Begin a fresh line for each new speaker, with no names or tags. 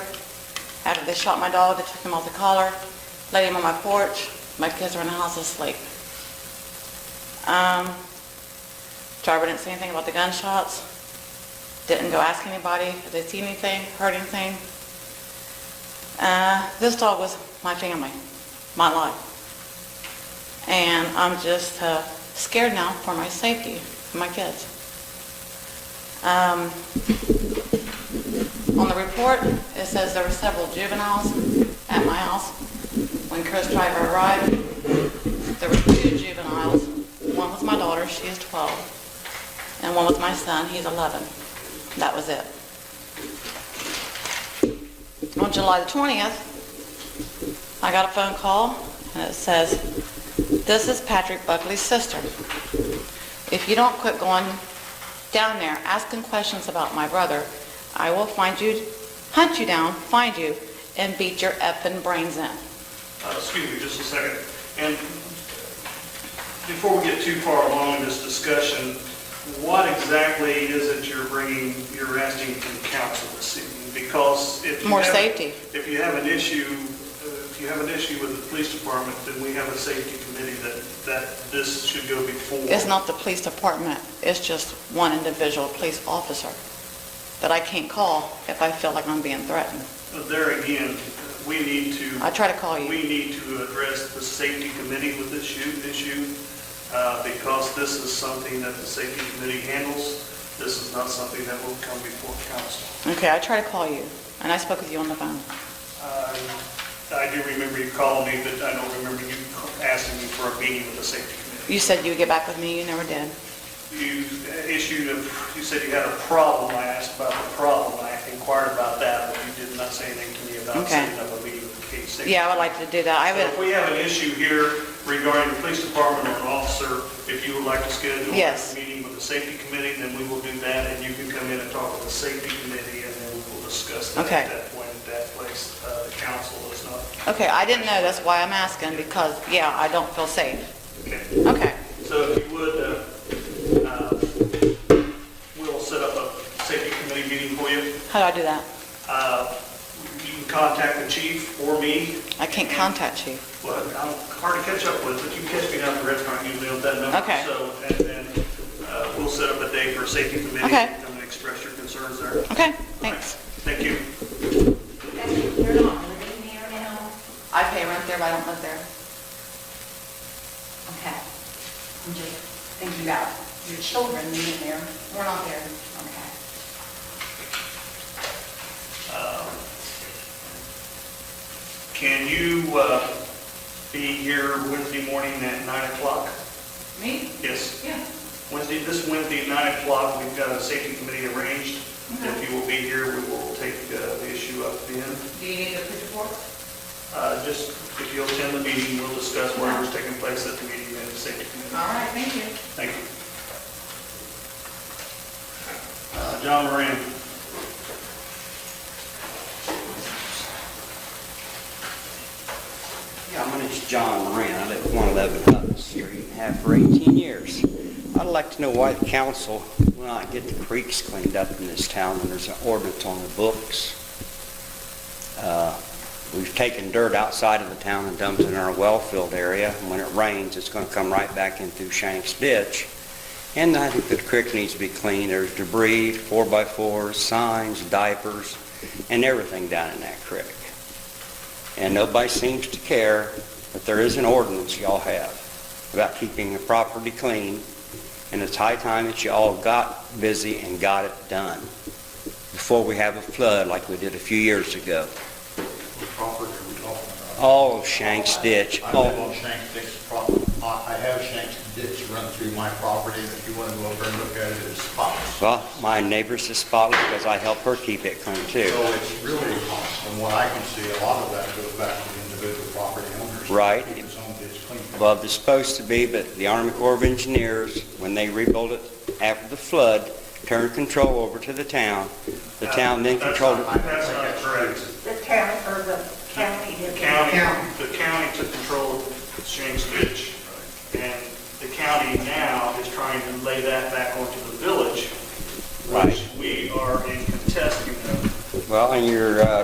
After they shot my dog, they took him off the collar, laid him on my porch. My kids were in the house asleep. Um, driver didn't say anything about the gunshots. Didn't go ask anybody if they see anything, heard anything. Uh, this dog was my family, my life. And I'm just uh, scared now for my safety, for my kids. Um, on the report, it says there were several juveniles at my house. When Chris Driver arrived, there were two juveniles. One was my daughter, she is 12, and one was my son, he's 11. That was it. On July the 20th, I got a phone call, and it says, "This is Patrick Buckley's sister. If you don't quit going down there asking questions about my brother, I will find you, hunt you down, find you, and beat your effing brains in."
Uh, Excuse me just a second. And before we get too far along in this discussion, what exactly is it you're bringing, you're asking from council this evening? Because if you
More
have-
safety.
If you have an issue, uh, if you have an issue with the police department, then we have a safety committee that, that this should go before.
It's not the police department, it's just one individual police officer that I can't call if I feel like I'm being threatened.
There again, we need to.
I try to call you.
We need to address the safety committee with this issue, issue, uh, because this is something that the safety committee handles. This is not something that will come before council.
Okay, I try to call you, and I spoke with you on the phone.
Uh, I do remember you called me, but I don't remember you asking me for a meeting with the safety committee.
You said you would get back with me, you never did.
You uh, issued, a- you said you had a problem, I asked about the problem, I inquired about that, but you did not say anything to me about
Okay.
setting up a meeting with the safety.
Yeah, I would like to do that, I
So If
would,
we have an issue here regarding the police department or an officer, if you would like to schedule
Yes.
a meeting with the safety committee, then we will do that, and you can come in and talk with the safety committee, and then we will discuss that
Okay.
at that point, at that place. Uh, The council is not,
okay, I didn't know, that's why I'm asking, because, yeah, I don't feel safe.
okay.
Okay,
So if you would, uh, uh, we'll set up a safety committee meeting for you.
how do I do that?
Uh, You can contact the chief or me,
I can't contact you.
Well, I'm hard to catch up with, but you can catch me down at the restaurant usually on that number.
Okay.
So, and then uh, we'll set up a day for a safety committee.
Okay.
Come and express your concerns there.
Okay, thanks.
Thank you.
You're not living there now?
I pay rent there, but I don't live there.
Okay. I'm just thinking about your children living there. We're not there. Okay.
Um, Can you uh, be here Wednesday morning at 9 o'clock?
Me?
Yes.
Yeah.
Wednesday, this Wednesday at 9 o'clock, we've got a safety committee arranged.
Mm-hmm.
If you will be here, we will take uh, the issue up then.
Do you need the police report?
Uh, Just if you'll attend the meeting, we'll discuss whatever's taking place at the meeting and the safety committee.
right, thank you.
Thank you. Uh, John Moran.
Yeah, my name's John Moran. I live at 111 Hutton Street and have for 18 years. I'd like to know why the council will not get the creeks cleaned up in this town when there's an ordinance on the books. Uh, We've taken dirt outside of the town and dumped it in our well-filled area. and When it rains, it's going to come right back in through Shanks Ditch. And I think the creek needs to be cleaned. There's debris, four-by-fours, signs, diapers, and everything down in that creek and nobody seems to care, but there is an ordinance y'all have about keeping the property clean, and it's high time that y'all got busy and got it done before we have a flood like we did a few years ago. Oh,
property are we talking about?
All of Shanks Ditch,
I live
all,
on Shanks Ditch property. I I have Shanks Ditch run through my property, and if you want to go over and look at it, it's spots.
well, my neighbor's is spotless because I help her keep it clean
So
too.
it's really, from what I can see, a lot of that goes back to the individual property owners.
Right.
Keep his own ditch clean.
Well, it's supposed to be, but the Army Corps of Engineers, when they rebuilt it after the flood, turned control over to the town. The town then
That's
controlled it.
not- That's not correct.
The town or the county did
The
that.
county, the county took control of Shanks Ditch, and the county now is trying to lay that back onto the village,
Right.
which we are in contest, you know,
Well, and your uh,